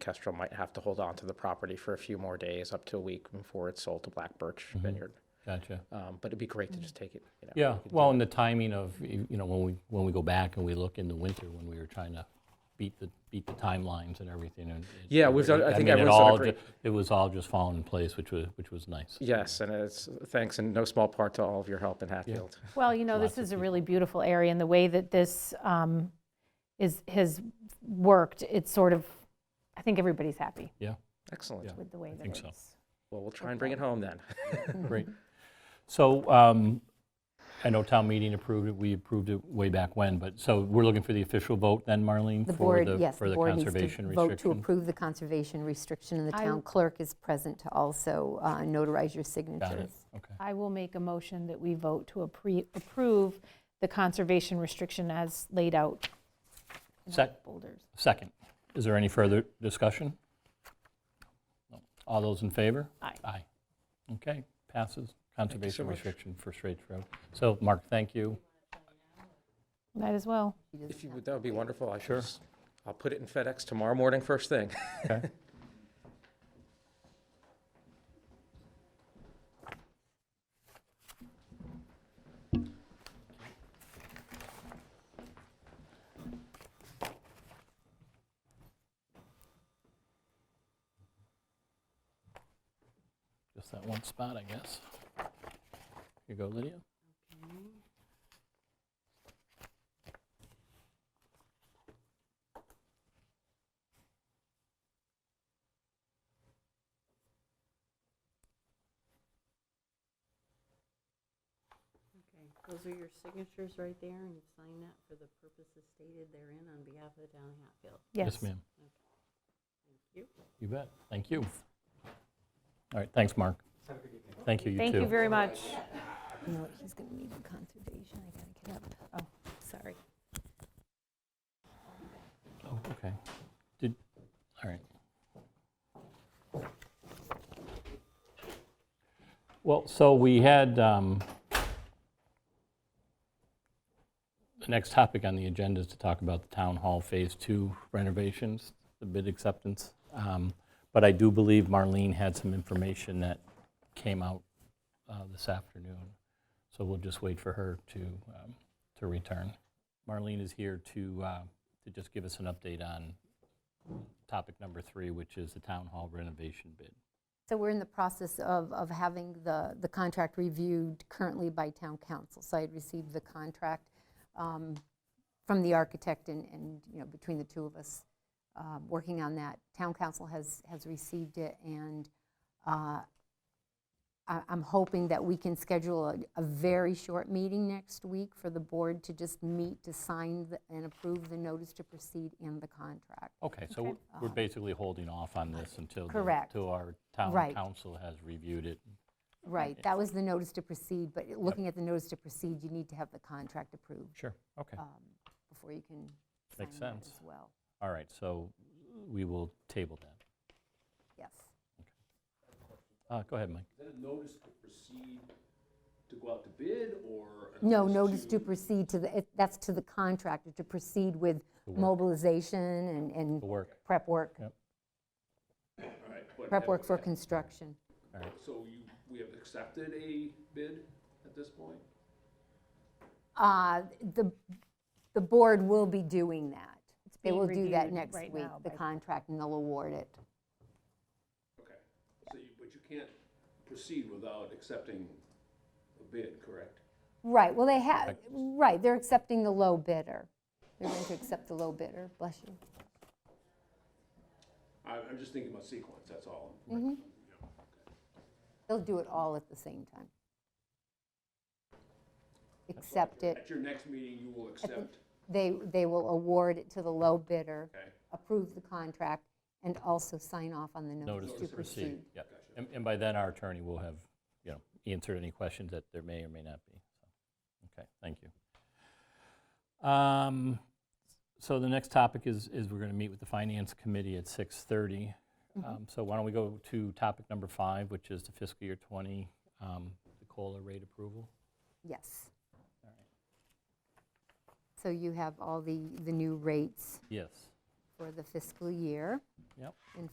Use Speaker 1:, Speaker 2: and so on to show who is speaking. Speaker 1: Kestrel might have to hold on to the property for a few more days, up to a week before it's sold to Black Birch Vineyard.
Speaker 2: Gotcha.
Speaker 1: Um, but it'd be great to just take it. You know,
Speaker 2: Mm-hmm. Yeah, well, and the timing of, y- you know, when we, when we go back and we look in the winter, when we were trying to beat the, beat the timelines and everything and. it-
Speaker 1: Yeah, we've done- I think
Speaker 2: mean, it
Speaker 1: everyone's done a
Speaker 2: all
Speaker 1: great-
Speaker 2: ju- It was all just falling in place, which was, which was nice.
Speaker 1: yes, and it's thanks in no small part to all of your help in Hatfield.
Speaker 3: Well, you know, this is a really beautiful area, and the way that this um, is, has worked, it's sort of, I think everybody's happy
Speaker 2: Yeah,
Speaker 1: Excellent.
Speaker 2: Yeah.
Speaker 3: with the way that
Speaker 2: think so.
Speaker 3: it's.
Speaker 1: Well, we'll try and bring it home then.
Speaker 2: great. So um, I know town meeting approved it, we approved it way back when, but, so we're looking for the official vote then, Marlene?
Speaker 4: The
Speaker 2: for
Speaker 4: board, yes,
Speaker 2: For
Speaker 4: the
Speaker 2: the
Speaker 4: board needs
Speaker 2: conservation
Speaker 4: to vote to
Speaker 2: restriction?
Speaker 4: approve the conservation restriction, and the
Speaker 3: I-
Speaker 4: town clerk is present to also uh, notarize your
Speaker 2: Got it,
Speaker 4: signatures.
Speaker 2: okay.
Speaker 3: I will make a motion that we vote to appre- approve the conservation restriction as laid out in the
Speaker 2: Sec-
Speaker 3: boulders.
Speaker 2: Second, is there any further discussion? No. All those in favor?
Speaker 3: Aye.
Speaker 2: Aye. Okay, passes. Conservation
Speaker 1: much.
Speaker 2: restriction for Straits Road. So, Mark, thank you.
Speaker 3: Might as well.
Speaker 1: If you would, that would be wonderful. I
Speaker 2: Sure.
Speaker 1: sure. I'll put it in FedEx tomorrow morning, first thing.
Speaker 2: Just that one spot, I guess. Here you go, Lydia.
Speaker 5: Okay, those are your signatures right there, and you sign that for the purposes stated therein on behalf of the town of Hatfield.
Speaker 3: Yes.
Speaker 2: ma'am.
Speaker 5: Thank you.
Speaker 2: You bet. Thank you. All right, thanks, Mark. Thank you, you too.
Speaker 3: Thank you very much.
Speaker 4: No, he's going to need the conservation, I got to get up. Oh, sorry.
Speaker 2: Oh, okay. Did, all right. Well, so we had, um, the next topic on the agenda is to talk about the Town Hall Phase Two renovations, the bid acceptance. Um, But I do believe Marlene had some information that came out uh, this afternoon, so we'll just wait for her to, um, to return. Marlene is here to, uh, to just give us an update on topic number three, which is the town hall renovation bid.
Speaker 4: So we're in the process of, of having the, the contract reviewed currently by town council. So I had received the contract um, from the architect and, and, you know, between the two of us, uh, working on that. Town council has, has received it, and uh, I- I'm hoping that we can schedule a, a very short meeting next week for the board to just meet to sign the- and approve the notice to proceed and the contract.
Speaker 2: Okay, so we're- we're basically holding off on this until. the-
Speaker 4: Correct.
Speaker 2: Till our town
Speaker 4: Right.
Speaker 2: council has reviewed it.
Speaker 4: Right, that was the notice to proceed, but looking at the notice to proceed, you need to have the contract approved
Speaker 2: Sure. Okay,
Speaker 4: um, before you can sign
Speaker 2: Makes
Speaker 4: that
Speaker 2: sense.
Speaker 4: as well.
Speaker 2: all right, so we will table that.
Speaker 4: Yes.
Speaker 2: Uh, Go ahead, Mike.
Speaker 6: notice to proceed to go out to bid or? a
Speaker 4: No, notice to proceed to the, it- that's to the contractor, to proceed with mobilization and,
Speaker 2: The
Speaker 4: and
Speaker 2: work.
Speaker 4: prep work,
Speaker 2: Yep.
Speaker 6: All right, but
Speaker 4: prep
Speaker 6: have-
Speaker 4: work for construction.
Speaker 6: So you, we have accepted a bid at this point?
Speaker 4: Uh, The, the board will be doing that. They
Speaker 3: being
Speaker 4: will do that
Speaker 3: reviewed
Speaker 4: next
Speaker 3: right
Speaker 4: week,
Speaker 3: now
Speaker 4: the
Speaker 3: by-
Speaker 4: contract, and they'll award it.
Speaker 6: Okay. So you, but you can't proceed without accepting a bid, correct?
Speaker 4: Right, well, they have, right, they're accepting the low bidder. They're going to accept the low bidder, bless you.
Speaker 6: I'm, I'm just thinking about sequence, that's all.
Speaker 4: They'll do it all at the same time. Accept it,
Speaker 6: At your next meeting, you will accept,
Speaker 4: they, they will award it to the low bidder,
Speaker 6: okay?
Speaker 4: approve the contract, and also sign off on the notice to proceed.
Speaker 2: Yeah, and and by then, our attorney will have, you know, answered any questions that there may or may not be. So, Okay, thank you. Um, So the next topic is, is we're going to meet with the Finance Committee at 6:30. Um, So why don't we go to topic number five, which is the fiscal year 20, um, the COLA rate approval?
Speaker 4: Yes. So you have all the, the new rates
Speaker 2: Yes.
Speaker 4: for the fiscal year.
Speaker 2: Yep.